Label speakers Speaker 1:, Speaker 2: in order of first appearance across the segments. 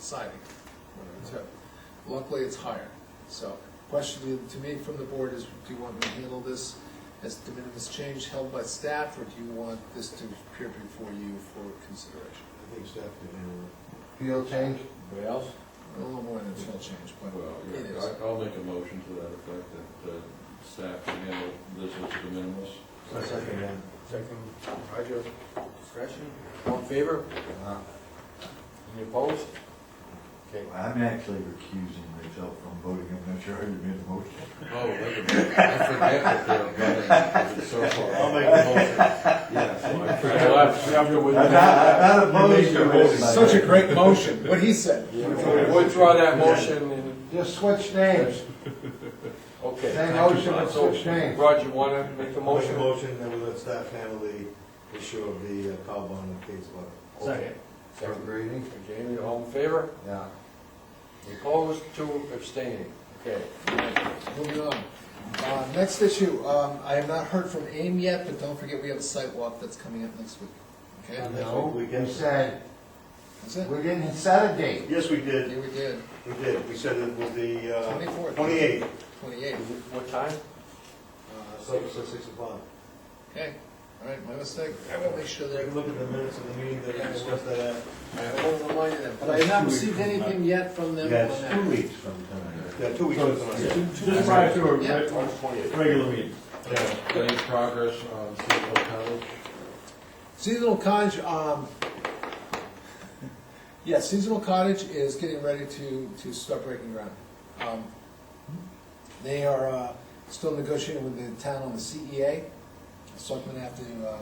Speaker 1: siding, one of the two. Luckily, it's higher. So, question to- to me from the board is, do you want me to handle this as de minimis change held by staff, or do you want this to appear before you for consideration?
Speaker 2: I think staff can handle it.
Speaker 3: Field change?
Speaker 4: Anybody else?
Speaker 1: A little more than field change, but
Speaker 5: Well,
Speaker 1: it
Speaker 5: yeah,
Speaker 1: is.
Speaker 5: I- I'll make a motion to that effect, that uh, staff can handle this as de minimis.
Speaker 2: Second, yeah.
Speaker 4: Second, Roger, discretion, all in favor?
Speaker 2: Uh-huh.
Speaker 4: Any opposed? Okay,
Speaker 3: I'm actually recusing myself from voting, I'm not sure how you made the motion.
Speaker 5: Oh, wait a minute, I forget that they're running so far. I'll make a motion. Yeah, so I
Speaker 4: Well,
Speaker 5: forgot.
Speaker 4: I'm- I'm with
Speaker 3: I'm not,
Speaker 4: that.
Speaker 3: I'm not opposed to voting.
Speaker 1: Such a great motion, what he said.
Speaker 4: Yeah, we'll Withdraw that motion and,
Speaker 3: Just switch names,
Speaker 4: okay.
Speaker 3: Same motion, but
Speaker 4: So,
Speaker 3: switch names.
Speaker 4: Roger, wanna make the
Speaker 2: I'll make a
Speaker 4: motion?
Speaker 2: motion that we let staff handle the issue of the uh, cow bond and Kate's bond.
Speaker 4: Okay.
Speaker 3: third
Speaker 4: Second,
Speaker 3: reading,
Speaker 4: Jamie, all in favor?
Speaker 3: yeah.
Speaker 4: Any Opposed, two abstaining, okay.
Speaker 1: Moving on. Uh, Next issue, um, I have not heard from AIM yet, but don't forget we have a site walk that's coming up next week. Okay?
Speaker 2: And that's
Speaker 3: No,
Speaker 2: what we
Speaker 3: we
Speaker 2: get.
Speaker 3: said,
Speaker 1: That's it?
Speaker 3: we didn't set a date.
Speaker 2: Yes, we did,
Speaker 1: Yeah, we did.
Speaker 2: we did, we said it was the uh,
Speaker 1: 24th.
Speaker 2: twenty-eighth,
Speaker 1: Twenty-eight.
Speaker 4: Is it- What time?
Speaker 2: uh, six, six six o'clock.
Speaker 1: Okay, all right, my mistake. I will make sure
Speaker 2: Take
Speaker 1: that.
Speaker 2: a look at the minutes of the meeting that we discussed that at.
Speaker 1: I will remind them, but I have not received anything yet from them on that.
Speaker 2: weeks from tonight. Yeah, two weeks from tonight.
Speaker 6: Just prior to a
Speaker 1: Yeah.
Speaker 6: reg-
Speaker 4: March twenty-eighth.
Speaker 6: regular meeting.
Speaker 5: Any progress on Citadel College?
Speaker 1: Seasonal cottage, um, yeah, seasonal cottage is getting ready to, to start breaking ground. Um, They are, uh, still negotiating with the town on the CEA. So I'm gonna have to, uh,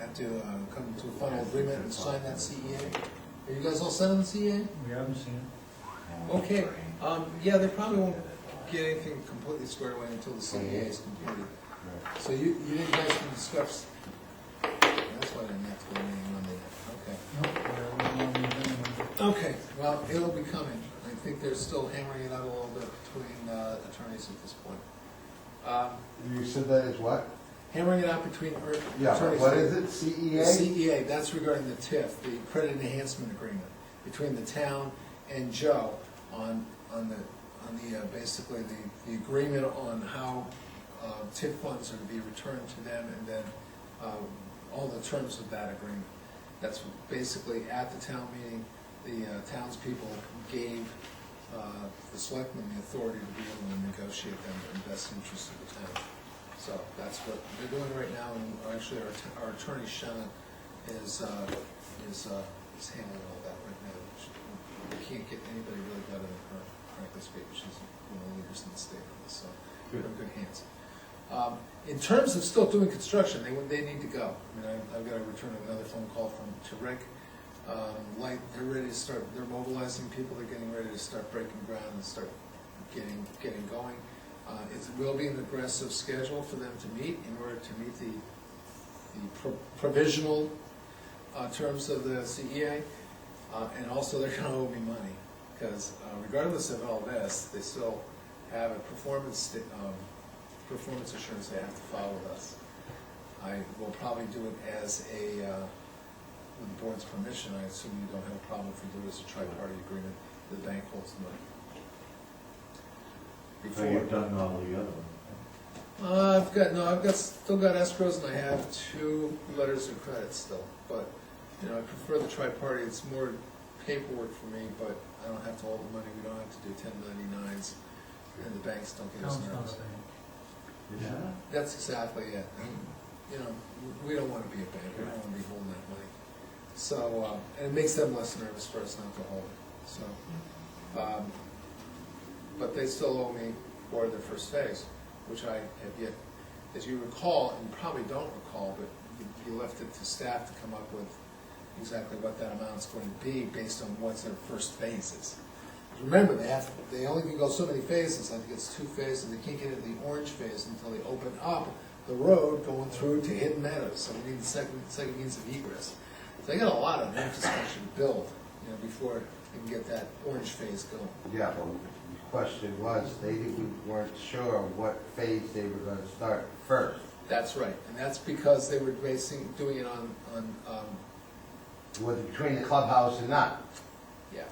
Speaker 1: have to, uh, come to a final agreement and sign that CEA. Are you guys all set on the E CEA?
Speaker 6: We haven't seen
Speaker 1: Okay, um, yeah, they probably won't get anything completely squared away until the CEA is completed.
Speaker 3: Mm-hmm.
Speaker 1: So you, you didn't guys can discuss, that's why I didn't have to go to the meeting Monday night, okay. Okay, well, it'll be coming, I think they're still hammering it out a little bit between uh, attorneys at this point. Um,
Speaker 3: You said that is what?
Speaker 1: Hammering it out between er-
Speaker 3: Yeah, but
Speaker 1: attorneys.
Speaker 3: what is it, E
Speaker 2: E
Speaker 1: The
Speaker 3: CEA?
Speaker 1: CEA, that's regarding the TIF, the credit enhancement agreement between the town and Joe on, on the, on the, uh, basically the, the agreement on how uh, TIF funds are to be returned to them and then um, all the terms of that agreement. That's basically at the town meeting, the uh, townspeople gave uh, the selectmen the authority to be able to negotiate them in the best interest of the town. So that's what they're doing right now, and actually, our att- our attorney Shannon is, uh, is, uh, is handling all that right now. She- We can't get anybody really better than her, frankly speaking, she's one of the leaders in the state on this, so we're in good hands. Um, In terms of still doing construction, they, would- they need to go. I mean, I- I've got a return of another phone call from, to Rick. Um, Like, they're ready to start, they're mobilizing people, they're getting ready to start breaking ground and start getting, getting going. Uh, It will be an aggressive schedule for them to meet in order to meet the, the pro- provisional uh, terms of the CEA. Uh, And also, they're gonna owe me money, because regardless of all this, they still have a performance, sta- um, performance assurance they have to follow with us. I will probably do it as a, uh, with the board's permission, I assume you don't have a problem if we do it as a tri-party agreement, the bank holds the money.
Speaker 2: So
Speaker 1: Before.
Speaker 2: you've done all the other ones.
Speaker 1: Uh, I've got, no, I've got, still got escrows and I have two letters of credit still, but, you know, I prefer the tri-party, it's more paperwork for me, but I don't have to hold the money, we don't have to do ten ninety-nines, and the banks don't get us nervous. That's exactly it, and, you know, we- we don't wanna be a bank, we don't wanna be holding that money. So, uh, and it makes them less nervous for us not to hold it, so. um, But they still owe me for their first phase, which I have yet, as you recall, and you probably don't recall, but you- you left it to staff to come up with exactly what that amount's going to be based on what's their first phase is. Remember, they have, they only can go so many phases, I think it's two phases, they can't get into the orange phase until they open up the road going through to Hidden Meadows, so we need the second, second means of egress. So they got a lot of infrastructure to build, you know, before they can get that orange phase going.
Speaker 3: Yeah, but the question was, they didn't- weren't sure what phase they were gonna start first.
Speaker 1: That's right, and that's because they were basing, doing it on, on, um,
Speaker 3: Was it between the clubhouse and not?
Speaker 1: yeah,